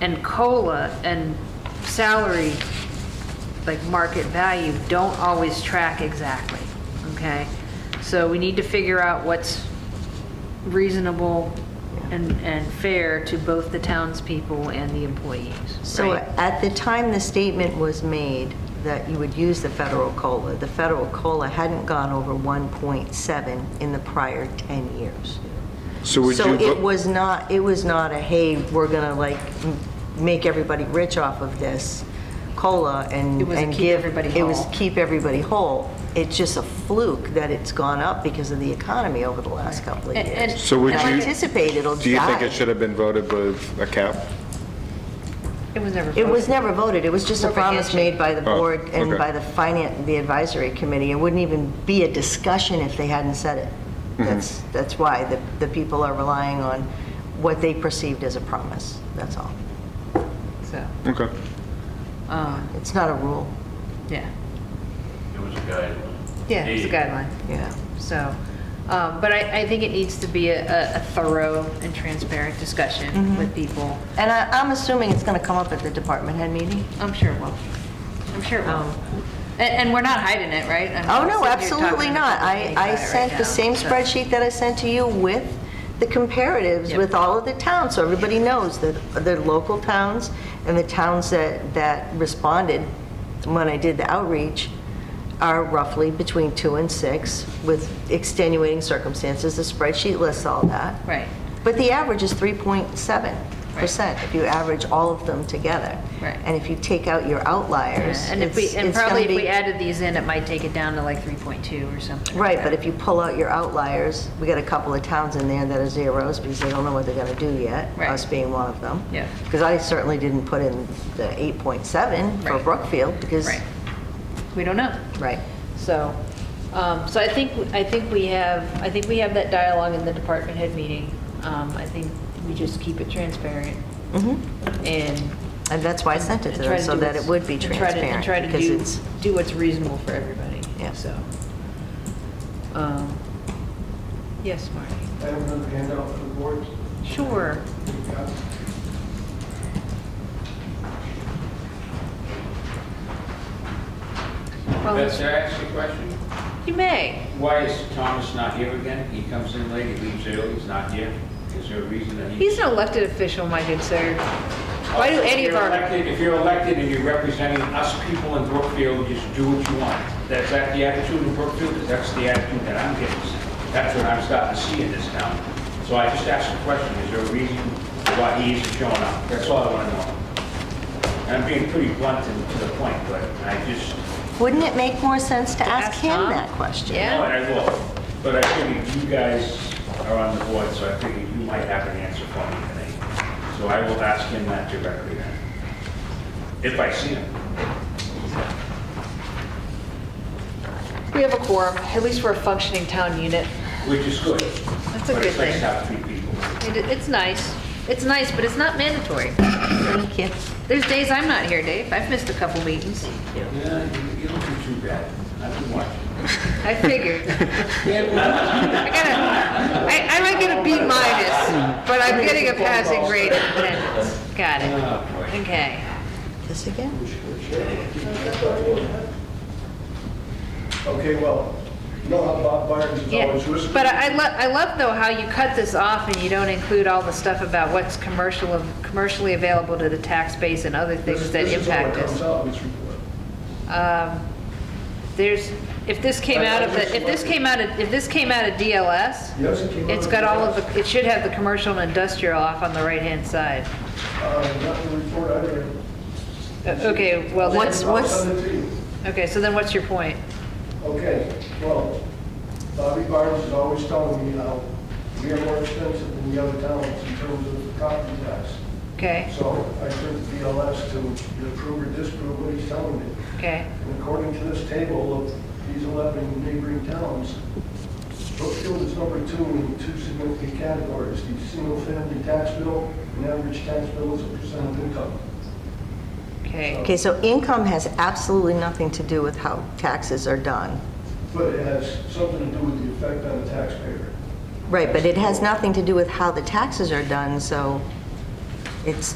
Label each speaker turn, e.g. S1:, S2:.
S1: and COLA and salary, like market value, don't always track exactly, okay? So we need to figure out what's reasonable and, and fair to both the townspeople and the employees.
S2: So
S1: right?
S2: at the time the statement was made that you would use the federal COLA, the federal COLA hadn't gone over 1.7 in the prior 10 years.
S3: So would
S2: So
S3: you
S2: it
S3: vote-
S2: was not, it was not a, hey, we're going to like m- make everybody rich off of this COLA and
S1: It was a
S2: and
S1: keep
S2: give.
S1: everybody
S2: It was
S1: whole.
S2: keep everybody whole. It's just a fluke that it's gone up because of the economy over the last couple of
S1: And- and-
S2: years.
S3: So would
S2: And I
S3: you-
S2: anticipate it'll die.
S3: Do you think it should have been voted with a cap?
S1: It was never.
S2: It
S1: voted.
S2: was never voted, it was just a
S1: More of a
S2: promise
S1: handshake.
S2: made by the
S3: Oh,
S2: board and
S3: okay.
S2: by the finance, the advisory committee. It wouldn't even be a discussion if they hadn't said it.
S3: Mm-hmm.
S2: That's, that's why the, the people are relying on what they perceived as a promise, that's all.
S1: So,
S3: Okay.
S1: um,
S2: It's not a rule,
S1: yeah,
S4: It was a guideline.
S1: yeah, it's a
S4: Hey,
S1: guideline.
S2: yeah.
S1: So, um, but I, I think it needs to be a, a- a thorough and transparent discussion with people.
S2: And I, I'm assuming it's gonna come up at the department head meeting?
S1: I'm sure it will. I'm sure it will.
S2: Um,
S1: And, and we're not hiding it, right? I mean,
S2: Oh, no,
S1: we're sitting here
S2: absolutely
S1: talking
S2: not.
S1: about
S2: I,
S1: it
S2: I
S1: right
S2: sent
S1: now,
S2: the same
S1: so-
S2: spreadsheet that I sent to you with the comparatives
S1: Yep.
S2: with all of the towns, so everybody knows that the local towns and the towns that, that responded when I did the outreach are roughly between two and six with extenuating circumstances. The spreadsheet lists all that.
S1: Right.
S2: But the average is 3.7% if you average all of them together.
S1: Right.
S2: And if you take out your
S1: Yeah,
S2: outliers,
S1: And if we,
S2: it's-
S1: and
S2: it's gonna
S1: probably if we
S2: be-
S1: added these in, it might take it down to like 3.2 or something. like
S2: Right,
S1: that.
S2: but if you pull out your outliers, we got a couple of towns in there that are zeros because they don't know what they're gonna do yet,
S1: Right.
S2: us being one of them.
S1: Yeah.
S2: Because I certainly didn't put in the 8.7 for
S1: Right.
S2: Brookfield because,
S1: Right. We don't know.
S2: right.
S1: So, um, so I think, I think we have, I think we have that dialogue in the department head meeting. Um, I think we just keep it transparent
S2: Mhm.
S1: and.
S2: And that's why I sent it to
S1: and try
S2: them, so
S1: do
S2: that it
S1: what's-
S2: would be
S1: and try to-
S2: transparent.
S1: And try to
S2: because
S1: do,
S2: it's-
S1: do what's reasonable for everybody,
S2: Yeah.
S1: so. um, Yes, Marty?
S5: I have another handout for the board.
S1: Sure.
S5: We've got-
S1: Well,
S6: Beth, can I ask you a question?
S1: You may.
S6: Why is Thomas not here again? He comes in late, he leaves early, he's not here. Is there a reason that he...
S1: He's an elected official, my good sir.
S6: Oh,
S1: Why do any
S6: If
S1: of
S6: you're
S1: our,
S6: elected- If you're elected and you're representing us people in Brookfield, just do what you want. That's that the attitude in Brookfield, 'Cause that's the attitude that I'm getting. That's what I'm starting to see in this town. So I just asked a question, is there a reason why he isn't showing up? That's all I want to know. And I'm being pretty blunt and to the point, but I just,
S2: Wouldn't it make more sense to ask
S1: ask
S2: him
S1: Tom?
S2: that question?
S1: Yeah.
S6: No, I will, but I figured you guys are on the board, so I figured you might have an answer for me tonight. So I will ask him that directly then, if I see him.
S1: we have a quorum, at least we're a functioning town unit.
S6: Which is good.
S1: That's a
S6: But it's
S1: good thing.
S6: nice to have three people.
S1: It- It's nice. It's nice, but it's not mandatory.
S2: Thank you.
S1: There's days I'm not here, Dave. I've missed a couple meetings.
S6: Yeah, you- you don't do too bad. I've been watching.
S1: I figured. I gotta, I, I might get a B minus, but I'm getting a passing grade in attendance. Got it.
S6: Oh, boy.
S1: Okay.
S2: This again?
S5: Okay, well, you know how Bob Byers is
S1: Yeah,
S5: always whispering?
S1: but I love, I love though how you cut this off and you don't include all the stuff about what's commercial, of- commercially available to the tax base and other
S5: This-
S1: things that
S5: This is all
S1: impact
S5: that comes
S1: us.
S5: out in this report.
S1: Um, There's, if this came
S5: I-
S1: out
S5: I
S1: of the,
S5: just
S1: if this
S5: love it.
S1: came out of, if this came out of DLS,
S5: Yes, it came out
S1: it's
S5: of
S1: got all of
S5: DLS.
S1: the, it should have the commercial and industrial off on the right-hand side.
S5: Uh, Not in the report I read.
S1: Uh, Okay, well then,
S2: What's-
S5: I'll send it to you.
S1: okay, so then what's your point?
S5: Okay, well, Bobby Byers is always telling me how we are more expensive than the other towns in terms of property tax.
S1: Okay,
S5: So I turned to BLS to approve or disapprove what he's telling me.
S1: okay,
S5: And according to this table of these 11 neighboring towns, Brookfield is number two in two significant categories, the single-family tax bill and average tax bill as a percent of income.
S1: okay.
S2: Okay, so income has absolutely nothing to do with how taxes are done.
S5: But it has something to do with the effect on the taxpayer.
S2: Right, but it has nothing to do with how the taxes are done, so it's,